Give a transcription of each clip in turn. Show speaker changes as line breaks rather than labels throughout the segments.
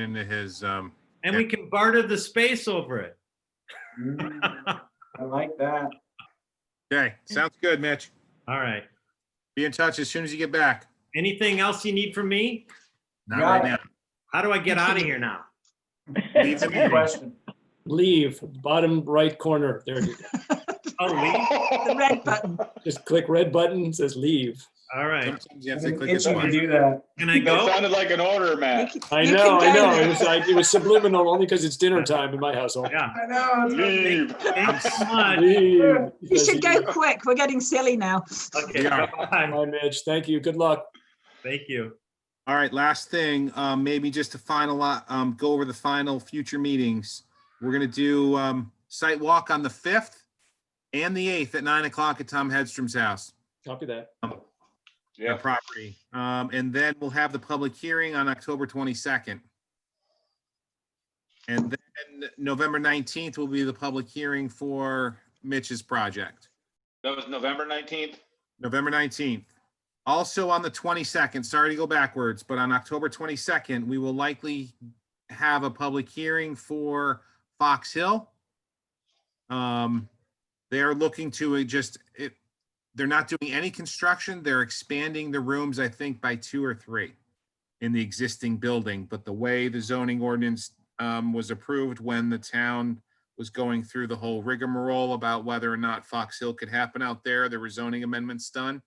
into his, um,
And we can barter the space over it.
Mm, I like that.
okay, sounds good, Mitch.
All right.
Be in touch as soon as you get back.
Anything else you need from me?
Not
Got
right now.
How do I get out of here now?
Leave the
Good
meeting.
question.
leave, bottom right corner. There, it is.
Oh, leave?
The red button.
just click red button, says leave.
All right.
Sometimes you have
It's
to
easy
click this
to
one.
do that.
Can I
That
go?
sounded like an order, Matt.
I
You
know, I
can go
know.
now.
It was like, it was subliminal only because it's dinner time in my household.
Yeah.
I know. it's like-
Leave.
Thanks so much.
Leave.
You should go quick. We're getting silly now.
Okay.
Yeah.
bye-bye.
Bye, Mitch. Thank you. Good luck.
Thank you.
All right, last thing, um, maybe just to final, um, go over the final future meetings. We're gonna do, um, site walk on the fifth and the eighth at nine o'clock at Tom Hedstrom's house,
Copy that.
the
Yeah,
property. Um, and then we'll have the public hearing on October twenty-second. And then November nineteenth will be the public hearing for Mitch's project.
that was November 19th.
November 19th. Also on the 22nd, sorry to go backwards, but on October 22nd, we will likely have a public hearing for Fox Hill. Um, They are looking to uh, just, it, they're not doing any construction. They're expanding the rooms, I think, by two or three in the existing building. But the way the zoning ordinance um, was approved when the town was going through the whole rigmarole about whether or not Fox Hill could happen out there. There were zoning amendments done.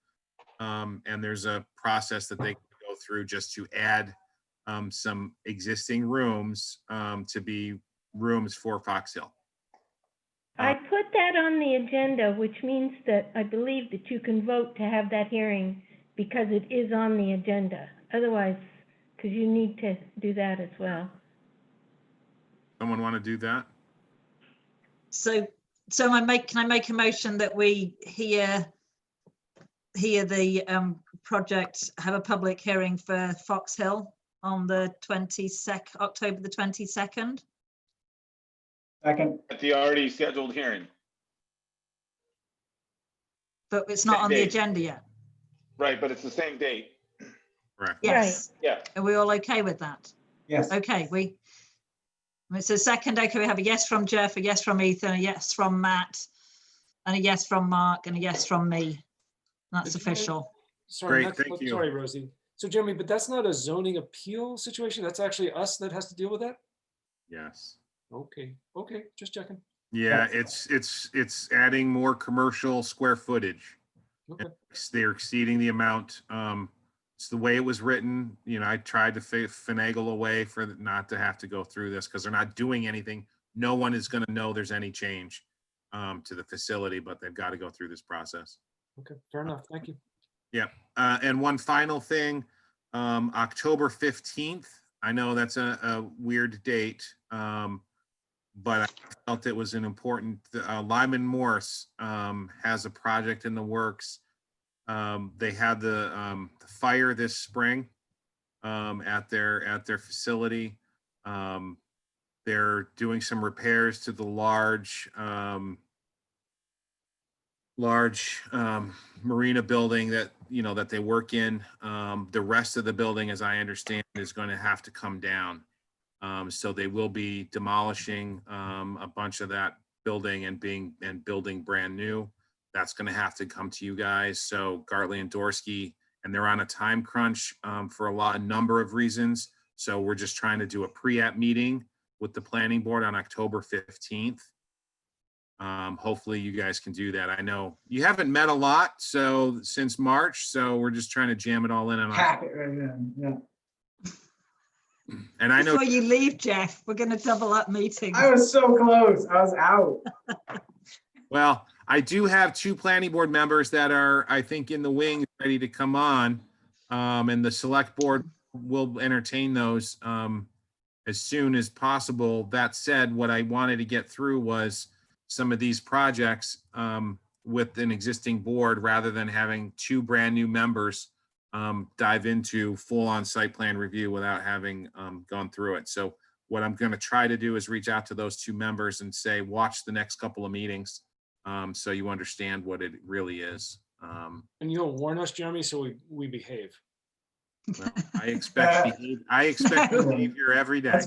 Um, and there's a process that they can go through just to add um, some existing rooms um, to be rooms for Fox Hill.
I put that on the agenda, which means that I believe that you can vote to have that hearing because it is on the agenda. Otherwise, because you need to do that as well.
Someone want to do that?
So, so I make, can I make a motion that we hear, hear the um, project, have a public hearing for Fox Hill on the 22nd, October the 22nd?
Second,
At the already scheduled hearing.
But it's not on the agenda yet.
Right, but it's the same date.
Correct.
Yes.
Yeah.
Are we all okay with that?
yes.
Okay, we, it's a second, okay, we have a yes from Jeff, a yes from Ethan, a yes from Matt, and a yes from Mark, and a yes from me. That's
Did you vote?
official.
Sorry,
Great,
not-
thank you.
sorry, Rosie. So Jeremy, but that's not a zoning appeal situation. That's actually us that has to deal with that?
Yes.
Okay, okay, just checking.
Yeah, it's, it's, it's adding more commercial square footage.
Okay.
It's- They're exceeding the amount. Um, it's the way it was written, you know, I tried to fi- finagle a way for th- not to have to go through this because they're not doing anything. No one is gonna know there's any change um, to the facility, but they've got to go through this process.
Okay, fair enough. Thank you.
Uh, and one final thing, um, October fifteenth, I know that's a, a weird date, um, but I felt it was an important, uh, Lyman Morse, um, has a project in the works. Um, they had the, um, the fire this spring, um, at their, at their facility. Um, they're doing some repairs to the large, um, large um, marina building that, you know, that they work in. Um, The rest of the building, as I understand, is going to have to come down. Um, So they will be demolishing um, a bunch of that building and being, and building brand new. That's going to have to come to you guys. So Gartley and Dorsey, and they're on a time crunch um, for a lot, a number of reasons. So we're just trying to do a pre-app meeting with the planning board on October 15th. Um, hopefully you guys can do that. I know you haven't met a lot, so since March, so we're just trying to jam it all in. And,
Pack it right in, yeah.
and I know,
Before you leave, Jeff, we're going to double up meetings.
I was so close. I was out.
well, I do have two planning board members that are, I think, in the wings, ready to come on. Um, and the select board will entertain those, um, as soon as possible. That said, what I wanted to get through was some of these projects, um, with an existing board rather than having two brand-new members um, dive into full-on site plan review without having um, gone through it. So what I'm going to try to do is reach out to those two members and say, watch the next couple of meetings. um, So you understand what it really is. Um,
And you'll warn us, Jeremy, so we, we behave.
I expect, behave- I expect behavior every day.